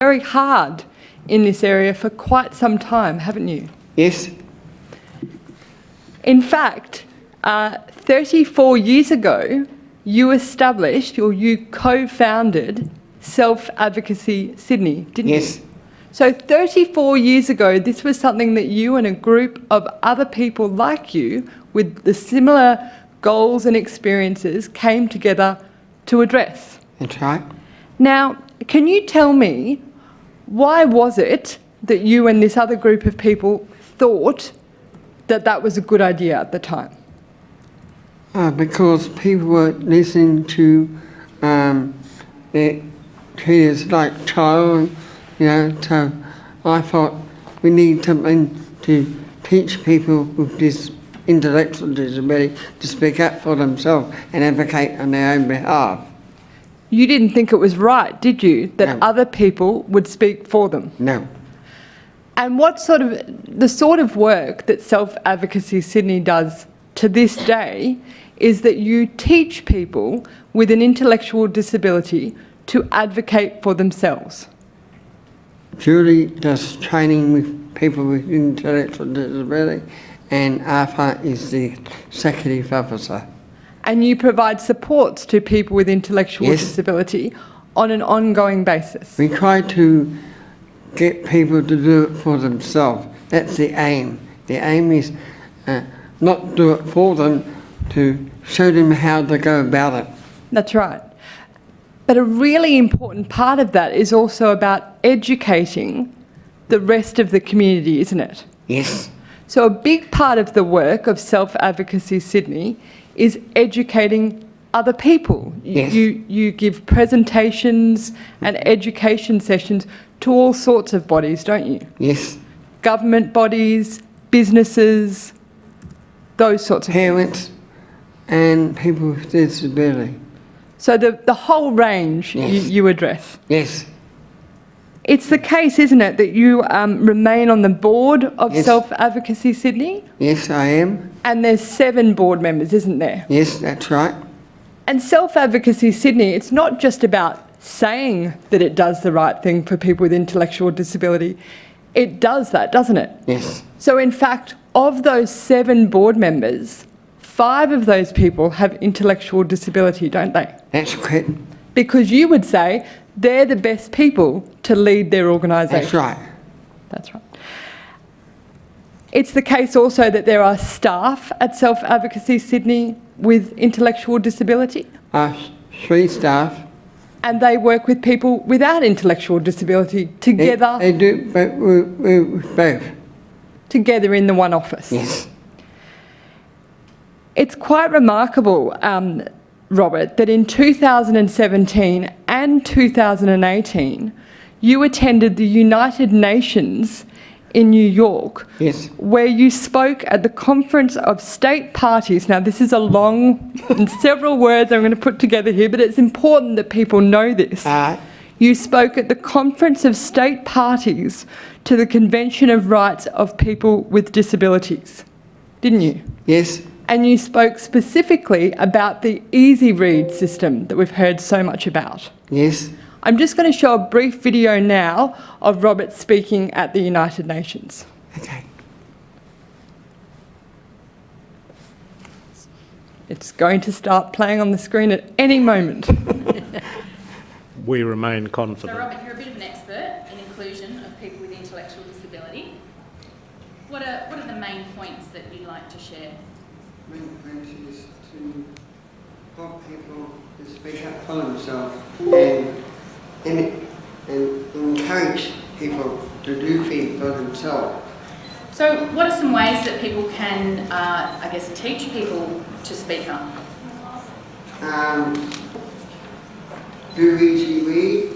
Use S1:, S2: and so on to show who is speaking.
S1: very hard in this area for quite some time, haven't you?
S2: Yes,
S1: In fact, uh, 34 years ago, you established or you co founded Self Advocacy Sydney, didn't
S2: yes,
S1: you? So, 34 years ago, this was something that you and a group of other people like you with the similar goals and experiences came together to address.
S2: that's right.
S1: Now, can you tell me why was it that you and this other group of people thought that that was a good idea at the time?
S2: Uh, because people were listening to um, their treaters like child, you know, so I thought we need something to teach people with this intellectual disability to speak up for themselves and advocate on their own behalf.
S1: You didn't think it was right, did you, that
S2: No.
S1: other people would speak for them?
S2: No.
S1: And what sort of the sort of work that Self Advocacy Sydney does to this day is that you teach people with an intellectual disability to advocate for themselves.
S2: Julie does training with people with intellectual disability and Arthur is the executive officer.
S1: And you provide supports to people with intellectual
S2: Yes.
S1: disability on an ongoing basis.
S2: We try to get people to do it for themselves. That's the aim. The aim is uh, not do it for them, to show them how to go about it.
S1: That's right. But a really important part of that is also about educating the rest of the community, isn't it?
S2: Yes.
S1: So, a big part of the work of Self Advocacy Sydney is educating other people.
S2: Yes.
S1: You, you give presentations and education sessions to all sorts of bodies, don't you?
S2: Yes.
S1: Government bodies, businesses, those sorts of
S2: Parents and people with disability.
S1: So, the, the whole range you,
S2: Yes.
S1: you address.
S2: Yes.
S1: It's the case, isn't it, that you um, remain on the board of
S2: Yes.
S1: Self Advocacy Sydney?
S2: Yes, I am.
S1: And there's seven board members, isn't there?
S2: Yes, that's right.
S1: And Self Advocacy Sydney, it's not just about saying that it does the right thing for people with intellectual disability. It does that, doesn't it?
S2: Yes.
S1: So, in fact, of those seven board members, five of those people have intellectual disability, don't they?
S2: That's correct.
S1: Because you would say they're the best people to lead their organisation.
S2: That's right.
S1: That's right. It's the case also that there are staff at Self Advocacy Sydney with intellectual disability,
S2: Uh, three staff.
S1: and they work with people without intellectual disability
S2: They-
S1: together,
S2: They do, but we, we, we both.
S1: together in the one office.
S2: Yes.
S1: It's quite remarkable, um, Robert, that in 2017 and 2018, you attended the United Nations in New York.
S2: Yes.
S1: where you spoke at the conference of state parties. Now, this is a long and several words I'm going to put together here, but it's important that people know this.
S2: Uh,
S1: You spoke at the conference of state parties to the Convention of Rights of People with Disabilities, didn't you?
S2: yes.
S1: And you spoke specifically about the easy read system that we've heard so much about.
S2: Yes.
S1: I'm just going to show a brief video now of Robert speaking at the United Nations.
S2: Okay.
S1: It's going to start playing on the screen at any moment.
S3: We remain
S4: So
S3: confident.
S4: Robert, you're a bit of an expert in inclusion of people with intellectual disability. What are, what are the main points that you'd like to share?
S2: main point is to help people to speak up for themselves and, and, and encourage people to do things for themselves.
S4: So what are some ways that people can, uh, I guess, teach people to speak up?
S2: Um, do easy read,